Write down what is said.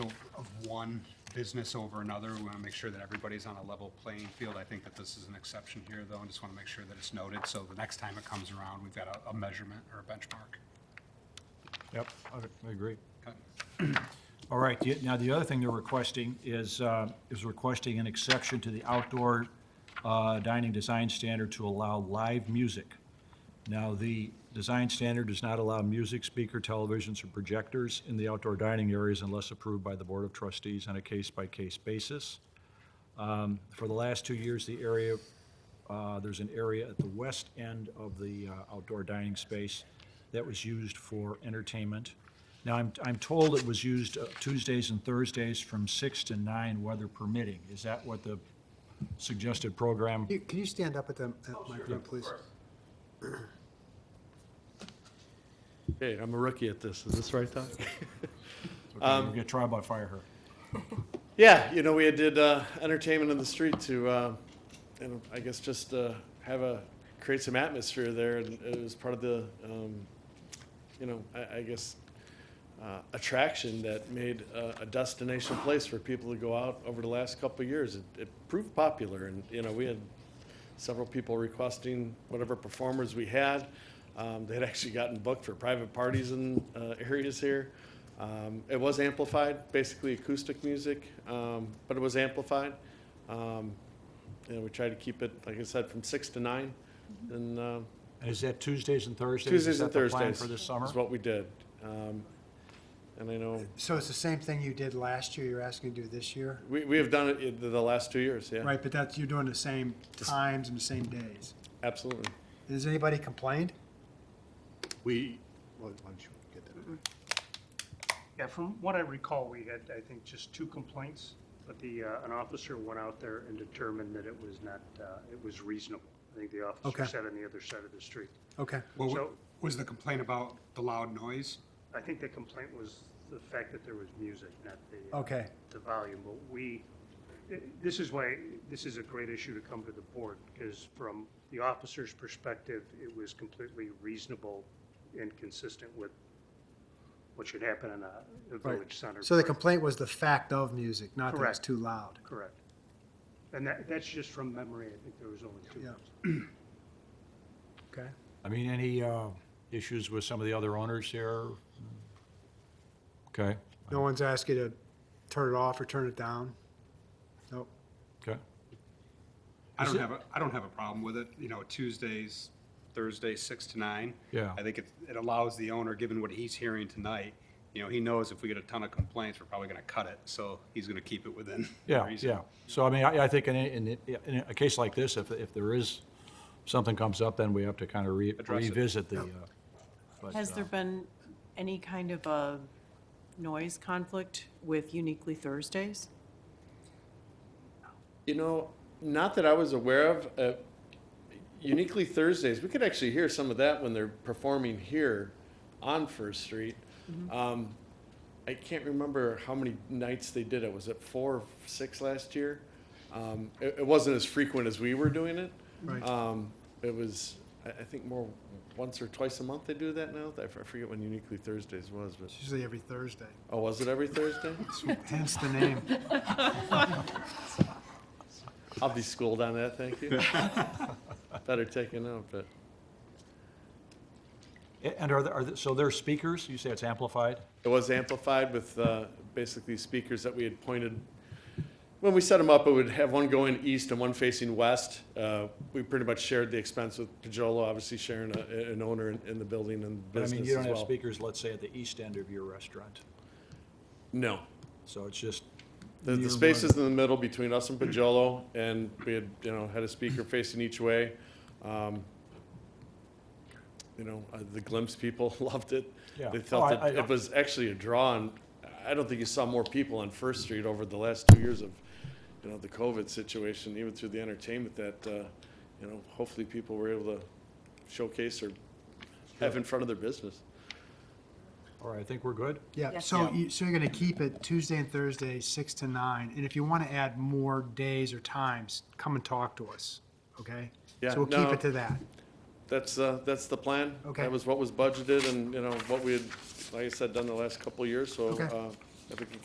one business over another. We want to make sure that everybody's on a level playing field. I think that this is an exception here, though, and just want to make sure that it's noted, so the next time it comes around, we've got a- a measurement or a benchmark. Yep, I- I agree. Okay. All right, the- now the other thing they're requesting is, uh, is requesting an exception to the outdoor uh, dining design standard to allow live music. Now, the design standard does not allow music, speaker, televisions, or projectors in the outdoor dining areas unless approved by the Board of Trustees on a case-by-case basis. Um, For the last two years, the area, uh, there's an area at the west end of the uh, outdoor dining space that was used for entertainment. Now, I'm, I'm told it was used uh, Tuesdays and Thursdays from six to nine, weather permitting. Is that what the suggested program? You- Can you stand up at the at microphone, please? Hey, I'm a rookie at this. Is this right, Doc? We're gonna try uh, by fire her. Yeah, you know, we did uh, entertainment in the street to, uh, and I guess just uh, have a create some atmosphere there, and it was part of the, um, you know, I, I guess uh, attraction that made uh, a destination place for people to go out over the last couple of years. It, it proved popular, and you know, we had several people requesting whatever performers we had. Um, they had actually gotten booked for private parties in uh, areas here. Um, it was amplified, basically acoustic music, um, but it was amplified. Um, you know, we tried to keep it, like I said, from six to nine, and uh, And is that Tuesdays and Thursdays? Is Tuesdays and that the Thursdays plan For this summer? is what we did. Um, and I know So it's the same thing you did last year, you're asking to do this year? We, we have done it in the- the last two years, yeah. Right, but that's, you're doing the same times and the same days. Absolutely. Has anybody complained? We, why don't you get that? Yeah, from what I recall, we had, I think, just two complaints, but the, uh, an officer went out there and determined that it was not, uh, it was reasonable. I think the Okay. officer sat on the other side of the street. Okay. Well, wa- So- was the complaint about the loud noise? I think the complaint was the fact that there was music, not the. uh, Okay. The volume, but we, th- this is why, this is a great issue to come to the board, because from the officer's perspective, it was completely reasonable and consistent with what should happen in a a village center. So the park. complaint was the fact of music, not that it's Correct. too loud. Correct. And that, that's just from memory, I think there was only two. Yeah. Okay. I mean, any uh, issues with some of the other owners here? Okay, No one's asked you to turn it off or turn it down? Nope. okay. I Is don't it- have a, I don't have a problem with it, you know, Tuesdays, Thursdays, six to nine. Yeah. I think it, it allows the owner, given what he's hearing tonight, you know, he knows if we get a ton of complaints, we're probably gonna cut it, so he's gonna keep it within. Yeah, reason. yeah. So I mean, I, I think in, a- in, a- in a case like this, if, if there is, something comes up, then we have to kind of re- Address it. revisit the, uh, but, Has uh, there been any kind of a noise conflict with Uniquely Thursdays? You know, not that I was aware of, uh, uniquely Thursdays, we could actually hear some of that when they're performing here on First Street. Mm-hmm. Um, I can't remember how many nights they did it. Was it four or six last year? Um, it, it wasn't as frequent as we were doing it. Right. Um, it was, I, I think more once or twice a month they do that now. I f- I forget when uniquely Thursdays was, but, It's usually every Thursday. oh, was it every Thursday? Hence the name. I'll be schooled on that, thank you. Better take a note, but. a- And are there, are there, so there's speakers? You say it's amplified? It was amplified with uh, basically speakers that we had pointed. When we set them up, it would have one going east and one facing west. Uh, We pretty much shared the expense with Pajolo, obviously sharing a- an owner in- in the building and But I mean, business you as don't have well. speakers, let's say, at the east end of your restaurant. No. So it's just. The- near The one- space is in the middle between us and Pajolo, and we had, you know, had a speaker facing each way. Um, You know, uh, the Glimpse people loved it. Yeah. They Oh, felt I- it I- it was actually a draw, and I don't think you saw more people on First Street over the last two years of, you know, the COVID situation, even through the entertainment that, uh, you know, hopefully people were able to showcase or have in front of their business. All right, I think we're good. Yeah, Yes. so you, so you're gonna keep it Tuesday and Thursday, six to nine, and if you wanna add more days or times, come and talk to us, okay? Yeah, So we'll keep no. it to that. That's, uh, that's the plan. Okay. That was what was budgeted and, you know, what we had, like I said, done the last couple of years, so, Okay. uh, if we can